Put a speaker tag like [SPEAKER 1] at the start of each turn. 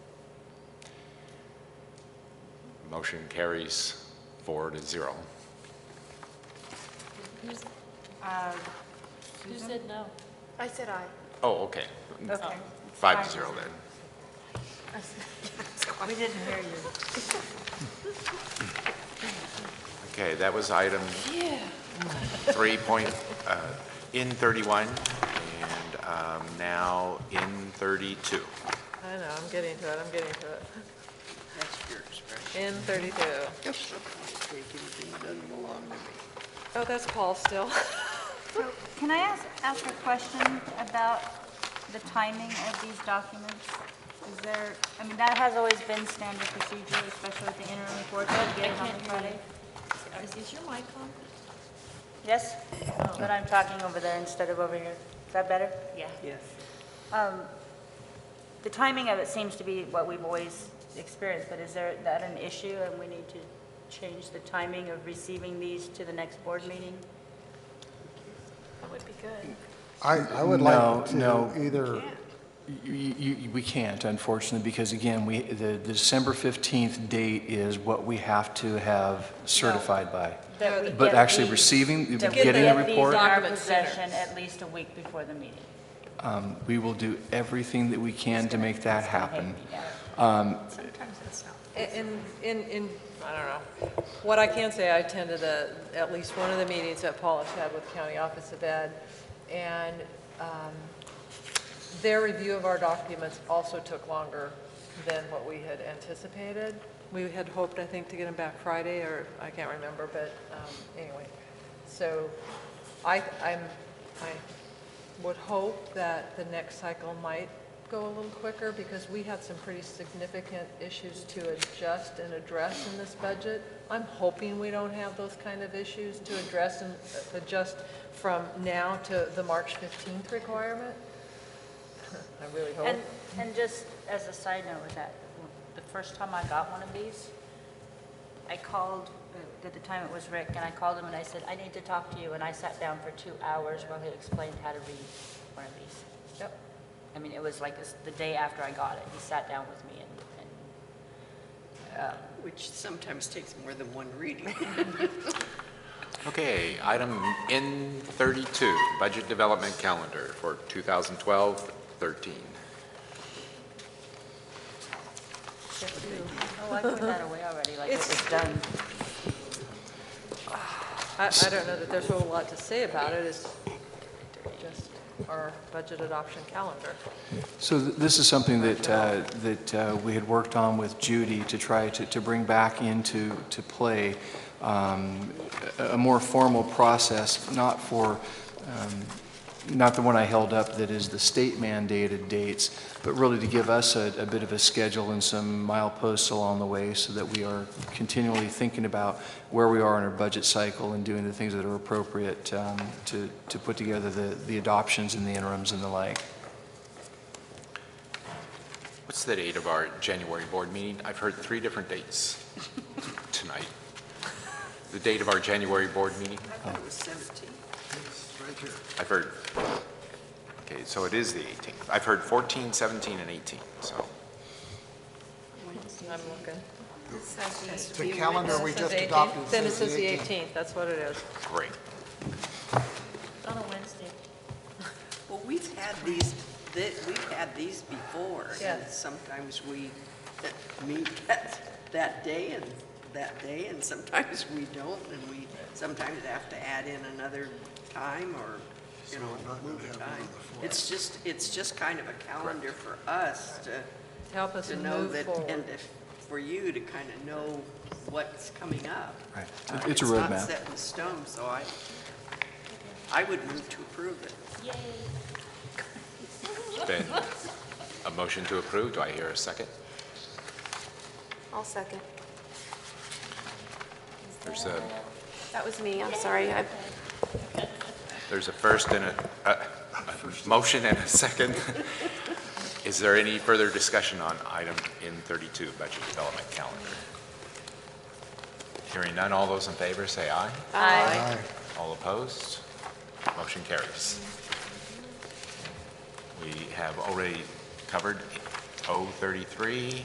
[SPEAKER 1] Motion carries four to zero.
[SPEAKER 2] Who's-
[SPEAKER 3] Uh,
[SPEAKER 2] Who said no?
[SPEAKER 4] I said aye.
[SPEAKER 1] Oh, okay.
[SPEAKER 3] Okay.
[SPEAKER 1] Five to zero then.
[SPEAKER 3] We didn't hear you.
[SPEAKER 1] Okay, that was item three point, uh, in 31, and um, now in 32.
[SPEAKER 5] I know, I'm getting to it, I'm getting to it. In 32. Oh, that's Paul still.
[SPEAKER 3] So can I ask, ask a question about the timing of these documents? Is there, I mean, that has always been standard procedure, especially with the interim reports, we get it on the Friday.
[SPEAKER 2] Is- Is your mic on?
[SPEAKER 3] Yes, but I'm talking over there instead of over here. Is that better? Yeah. Yes. The timing of it seems to be what we've always experienced, but is there, that an issue, and we need to change the timing of receiving these to the next board meeting?
[SPEAKER 2] That would be good.
[SPEAKER 6] I, I would
[SPEAKER 7] No,
[SPEAKER 6] like
[SPEAKER 7] no.
[SPEAKER 6] to either,
[SPEAKER 7] You- you- you- We can't, unfortunately, because again, we, the the December 15th date is what we have to have certified by.
[SPEAKER 3] That we
[SPEAKER 7] But
[SPEAKER 3] get
[SPEAKER 7] actually
[SPEAKER 3] these-
[SPEAKER 7] receiving-
[SPEAKER 3] that we
[SPEAKER 7] getting
[SPEAKER 3] get
[SPEAKER 7] the
[SPEAKER 3] these
[SPEAKER 7] report-
[SPEAKER 3] in our
[SPEAKER 5] Documents sooner.
[SPEAKER 3] possession at least a week before the meeting.
[SPEAKER 7] Um, We will do everything that we can to make that happen.
[SPEAKER 3] Yeah.
[SPEAKER 5] In, in, in, I don't know. What I can say, I attended the, at least one of the meetings that Paula had with County Office of Ed, and um, their review of our documents also took longer than what we had anticipated. We had hoped, I think, to get them back Friday, or I can't remember, but um, anyway. So I, I'm, I would hope that the next cycle might go a little quicker, because we had some pretty significant issues to adjust and address in this budget. I'm hoping we don't have those kind of issues to address and adjust from now to the March 15th requirement. I really hope.
[SPEAKER 3] And, and just as a side note with that, the first time I got one of these, I called, uh, at the time it was Rick, and I called him and I said, I need to talk to you, and I sat down for two hours while he explained how to read one of these.
[SPEAKER 5] Yep.
[SPEAKER 3] I mean, it was like this- the day after I got it, he sat down with me and, and
[SPEAKER 8] Which sometimes takes more than one reading.
[SPEAKER 1] Okay, item in 32, budget development calendar for 2012-13.
[SPEAKER 3] Oh, I put that away already, like it was done.
[SPEAKER 5] I, I don't know that there's a whole lot to say about it, it's just our budget adoption calendar.
[SPEAKER 7] So th- this is something that, uh, that uh, we had worked on with Judy to try to, to bring back into, to play um, a a more formal process, not for, um, not the one I held up that is the state mandated dates, but really to give us a, a bit of a schedule and some mileposts along the way so that we are continually thinking about where we are in our budget cycle and doing the things that are appropriate um, to, to put together the, the adoptions and the interims and the like.
[SPEAKER 1] What's the date of our January board meeting? I've heard three different dates tonight. The date of our January board meeting?
[SPEAKER 8] I thought it was 17.
[SPEAKER 1] I've heard, okay, so it is the 18th. I've heard 14, 17, and 18, so.
[SPEAKER 5] I'm looking.
[SPEAKER 6] the calendar we
[SPEAKER 5] It says
[SPEAKER 6] just
[SPEAKER 5] 18th.
[SPEAKER 6] adopted
[SPEAKER 5] Then it says
[SPEAKER 6] says the
[SPEAKER 5] the
[SPEAKER 6] 18th.
[SPEAKER 5] 18th, that's what it is.
[SPEAKER 1] Great.
[SPEAKER 2] It's on a Wednesday.
[SPEAKER 8] Well, we've had these, thi- we've had these before. And
[SPEAKER 5] Yeah.
[SPEAKER 8] sometimes we uh, meet that, that day and that day, and sometimes we don't, and we sometimes have to add in another time or, you know, move the time. It's just, it's just kind of a calendar for us to
[SPEAKER 5] To Help us
[SPEAKER 8] to know
[SPEAKER 5] move
[SPEAKER 8] that,
[SPEAKER 5] forward.
[SPEAKER 8] and if, for you to kind of know what's coming up.
[SPEAKER 7] Right.
[SPEAKER 8] Uh,
[SPEAKER 7] It- it's a
[SPEAKER 8] not
[SPEAKER 7] roadmap.
[SPEAKER 8] set in stone, so I, I would move to approve it.
[SPEAKER 1] Then, a motion to approve, do I hear a second?
[SPEAKER 4] I'll second.
[SPEAKER 1] There's a,
[SPEAKER 4] That was me, I'm sorry. I-
[SPEAKER 1] there's a first and a, a, a motion and a second. Is there any further discussion on item in 32, budget development calendar? Hearing none, all those in favor say aye.
[SPEAKER 4] Aye.
[SPEAKER 1] All opposed? Motion carries. We have already covered 033,